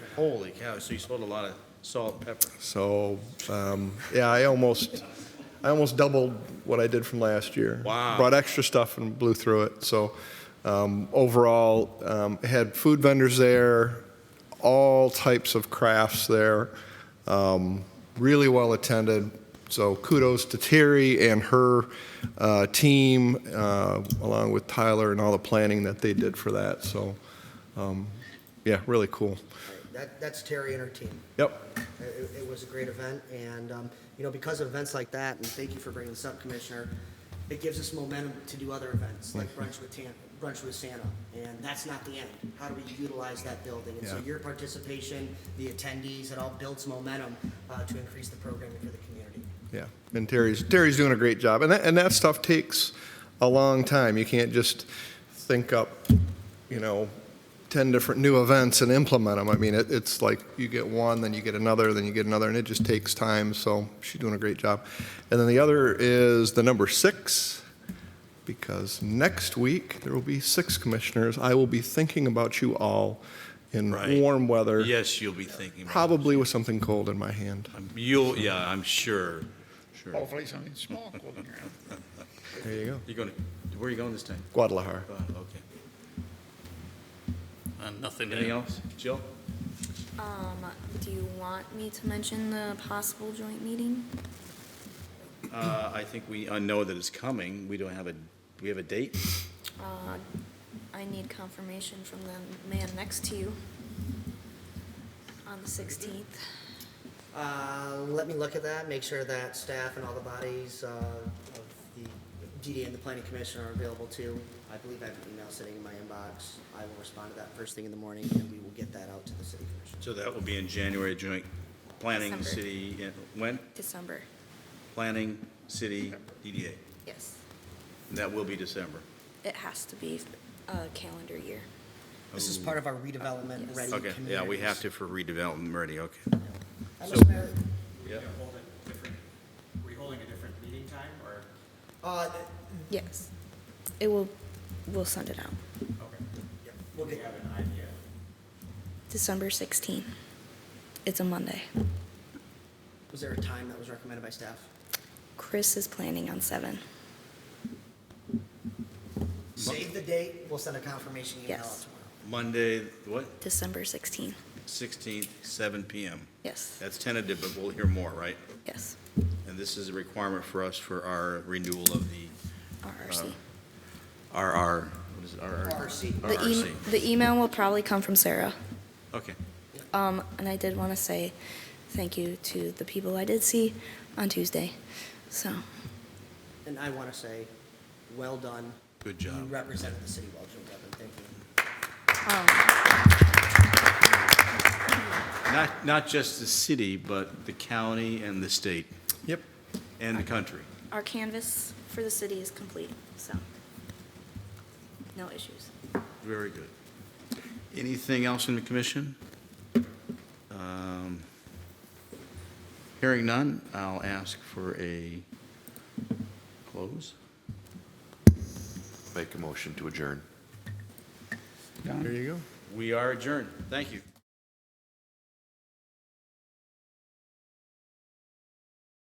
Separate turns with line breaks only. Holy cow, so you sold a lot of salt and pepper.
So, um, yeah, I almost, I almost doubled what I did from last year.
Wow.
Brought extra stuff and blew through it. So, um, overall, um, had food vendors there, all types of crafts there, um, really well attended. So kudos to Terry and her uh, team, uh, along with Tyler and all the planning that they did for that. So, um, yeah, really cool.
That, that's Terry and her team.
Yep.
It- It, it was a great event, and, um, you know, because of events like that, and thank you for bringing this up, Commissioner, it gives us momentum to do other events, like Brunch with Tan, Brunch with Santa, and that's not the end. How do we utilize that building? And so
Yeah.
your participation, the attendees, it all builds momentum, uh, to increase the programming for the community.
Yeah, and Terry's Terry's doing a great job, and that and that stuff takes a long time. You can't just think up, you know, ten different new events and implement them. I mean, it, it's like you get one, then you get another, then you get another, and it just takes time. So she's doing a great job. And then the other is the number six, because next week there will be six commissioners. I will be thinking about you all in
Right.
warm weather,
Yes, you'll be thinking about it.
probably with something cold in my hand.
Um, You'll, yeah, I'm sure, sure.
Hopefully something small floating around.
There you go,
You're going, to where are you going this time?
Guadalajara.
Wow, Okay.
Uh, Nothing to
Anything else? Jill?
Um, do you want me to mention the possible joint meeting?
Uh, I think we uh, know that it's coming. We don't have a, we have a date?
Uh, I need confirmation from the man next to you on the 16th.
Uh, Let me look at that, make sure that staff and all the bodies uh, of the DD and the planning commission are available too. I believe I have an email sitting in my inbox. I will respond to that first thing in the morning, and we will get that out to the city commission.
So that will be in January, joint planning,
December.
city, and- when?
December,
Planning, city, DDA.
yes.
And that will be December.
It has to be a calendar year.
This is part of our redevelopment ready
Okay,
communities.
yeah, we have to for redevelopment, already, okay.
Uh,
so-
Mr. Mayor,
Yeah.
Are we holding different- are we holding a different meeting time, or?
uh,
Yes. It will, we'll send it out.
Okay.
we'll
Do
get-
you have an idea?
December 16th. It's a Monday.
Was there a time that was recommended by staff?
Chris is planning on 7.
Save the date, we'll send a confirmation email out
Yes.
tomorrow.
Monday, what,
December 16th.
16th, 7 PM.
Yes,
That's tentative, but we'll hear more, right?
yes,
And this is a requirement for us for our renewal of the
RRC.
RR, what is it, RR?
RRC.
The e-
RRC.
The email will probably come from Sarah.
Okay,
Um, and I did want to say thank you to the people I did see on Tuesday. So, um.
And I want to say, well done.
good
You
job.
represented the city well, Joe Devlin, thank you.
um,
Not, not just the city, but the county and the state
Yep.
and the country.
our canvas for the city is complete, so no issues.
Very good. Anything else in the commission? Um, Hearing none, I'll ask for a close.
Make a motion to adjourn.
There you go.
We are adjourned. Thank you.